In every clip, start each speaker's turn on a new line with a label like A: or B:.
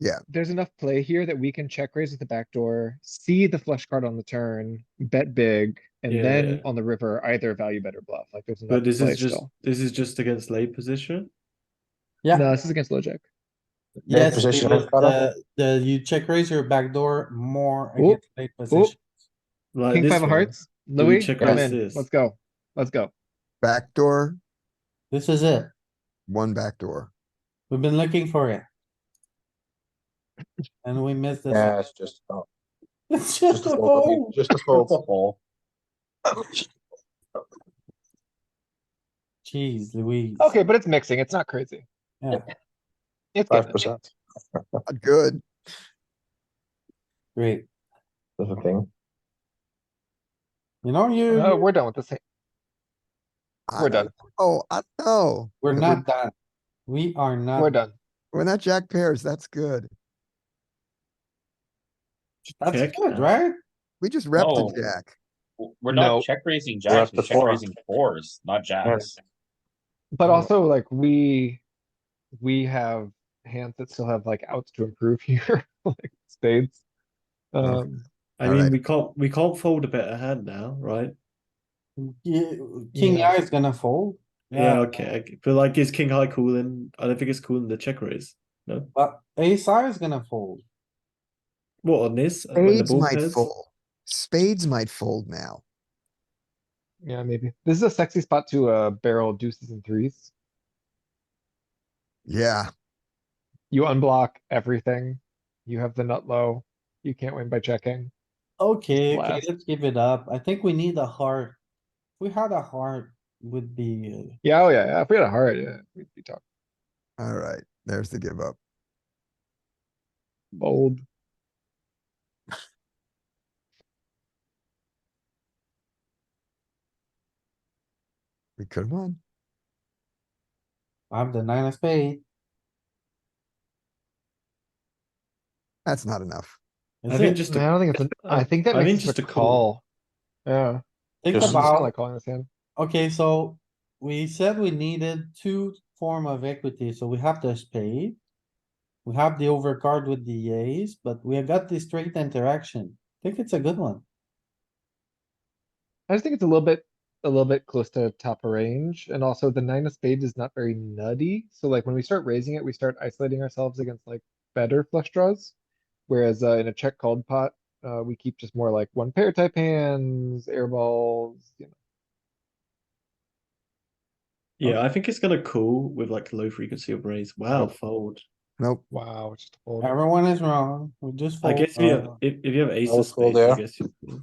A: Yeah.
B: There's enough play here that we can check raise with the back door, see the flush card on the turn, bet big, and
C: Yeah.
B: then on the river, either value bet or bluff, like there's enough
C: But this
B: play
C: is just
B: still.
C: this is just against late position.
D: Yeah.
B: No, this is against LoJack.
D: Yes,
E: position
D: because
E: of cutoff.
D: the, the, you check raise your backdoor more
B: Oh,
D: against late position.
C: Like
B: King
C: Uh, this
B: five of
C: one.
B: hearts,
C: Do we
B: Louis,
C: check
B: come
C: raise
B: in,
C: this?
B: let's go, let's go.
A: Backdoor,
D: This is it.
A: one backdoor.
D: We've been looking for it. And we missed this.
E: Yeah, it's just, oh,
D: It's
E: just
D: just
E: a
D: a
E: fold, I mean,
D: fold.
E: just a fold. Fold.
D: Jeez Louise.
B: Okay, but it's mixing, it's not crazy.
D: Yeah.
B: It's
E: Five
B: good.
E: percent,
A: Not Good.
D: Great.
E: that's the thing.
D: You know,
B: Uh,
D: you,
B: we're done with this, hand.
A: I
B: we're
A: don't
B: done,
A: know. Oh, I don't know.
D: we're not done. We are
E: Uh,
D: not.
B: we're done.
A: We're not jack pairs. That's good.
D: That's
C: Check
D: good,
C: now.
D: right?
A: We just repped
F: No.
B: Oh.
A: the jack.
F: W- We're
B: No.
F: not check raising
E: have
F: jacks,
E: to
F: we're check
E: four.
F: raising fours, not jacks.
B: But
E: Yeah.
B: also like we, we have hands that still have like outs to improve here, like spades. Um,
C: I
A: All
C: mean,
A: right.
C: we can't we can't fold a better hand now, right?
D: You- King
B: Yeah.
D: eye is gonna fold.
C: Yeah, okay. I g- But like, is king high cool? And I don't think it's cool in the check raise. No.
D: But ace high is gonna fold.
C: What on this? When the
A: Spades
C: ball
A: might
C: pairs?
A: fold. Spades might fold now.
B: yeah, maybe. This is a sexy spot to, uh, barrel deuces and threes.
A: Yeah,
B: You unblock everything. You have the nut low. You can't win by checking.
D: Okay, okay,
B: Blast.
D: let's give it up. I think we need a heart. If We had a heart would be, uh,
B: Yeah, oh yeah, yeah, if we had a heart, yeah, we'd be talking
A: alright, there's the give up.
B: bold.
A: We could have won.
D: I'm the nine of spade.
A: That's not enough.
C: I
D: Is
C: think
D: it?
C: just
B: I
C: a,
B: don't think it's, an- I think that
C: I mean,
B: makes
C: just
B: it a
C: a call.
B: call. Yeah,
D: Think
B: I
E: Just-
D: about,
B: like calling this hand.
D: okay, so we said we needed two form of equity, so we have the spade. We have the overcard with the ace, but we have got the straight interaction. I think it's a good one.
B: I just think it's a little bit, a little bit close to top of range, and also the nine of spades is not very nutty, so like when we start raising it, we start isolating ourselves against like better flush draws. Whereas, uh, in a check called pot, uh, we keep just more like one pair type hands, air balls, you know.
C: yeah, I think it's gonna cool with like low frequency of raise. Wow, fold.
A: Nope,
B: Wow, just fold.
D: Everyone is wrong. We just
C: I
D: fold.
C: guess if you have,
B: Ah.
D: Uh,
C: if, if you have ace
E: I'll
C: of
E: call
C: spades, I
E: there.
C: guess you. cool.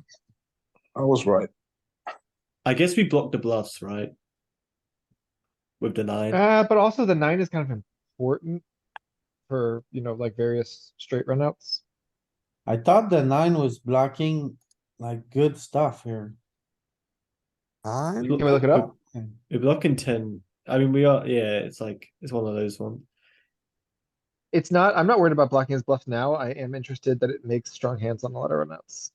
E: I was right.
C: I guess we block the bluffs, right? With the nine.
B: Uh, but also the nine is kind of important for, you know, like various straight runouts.
D: I thought the nine was blocking like good stuff here.
A: I'm,
C: Look-
B: Can we look it up?
D: And
C: We're blocking ten. I mean, we are. Yeah, it's like it's one of those ones.
B: It's not, I'm not worried about blocking his bluff now. I am interested that it makes strong hands on a lot of runouts.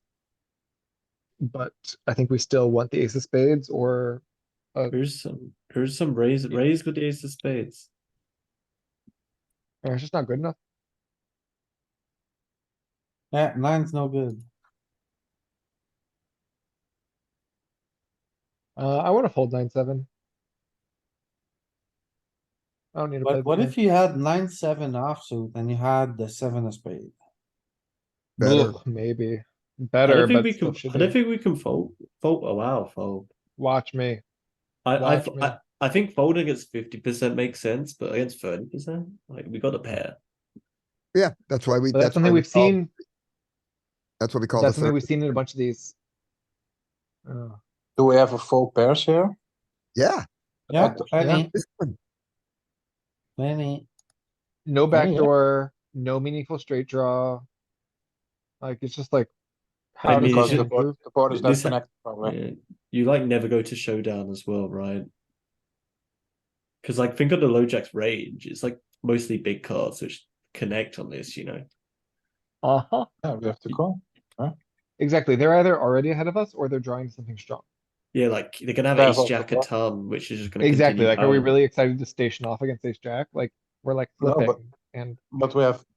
B: But I think we still want the ace of spades or,
C: Here's some. Here's some raise. Raise with the ace of spades.
B: or it's just not good enough.
D: Yeah, eh, nine's no good.
B: Uh, I wanna fold nine, seven. I don't need to play.
D: But what if you had nine, seven offsuit and you had the seven of spade?
A: better,
B: Maybe,
C: I
B: better,
C: don't think
B: but
C: we
B: still
C: can.
B: should
C: I don't
B: be.
C: think we can fold. Fold. Oh wow, fold.
B: Watch me.
C: I I,
B: Watch me.
C: I I think folding against fifty percent makes sense, but against thirty percent, like we got a pair.
A: yeah, that's why we,
B: But that's
A: that's why
B: something
A: we
B: we've
A: call,
B: seen,
A: that's what we call the
B: that's something
A: third.
B: we've seen in a bunch of these. Uh,
E: Do we have a full pairs here?
A: Yeah,
D: Yeah,
E: thought-
D: plenty,
A: this one,
D: plenty.
B: No
D: Yeah, yeah.
B: backdoor, no meaningful straight draw. Like, it's just like.
C: I
B: How
C: mean,
B: does
E: Because
B: it
C: should-
E: the board,
B: improve?
E: the board is not
C: This-
E: connected probably.
C: Yeah. You like never go to showdown as well, right? Because like think of the low jacks range. It's like mostly big cards which connect on this. You know.
B: Uh-huh.
E: Yeah, we have to call.
B: Exactly. They're either already ahead of us or they're drawing something strong.
C: Yeah, like they're gonna have
E: Yeah,
C: ace
E: but-
C: jack a ton, which is just gonna
B: Exactly.
C: continue Um,
B: Like, are we
C: going.
B: really excited to station off against ace jack? Like, we're like
E: No, but-
B: flipping and
E: But we have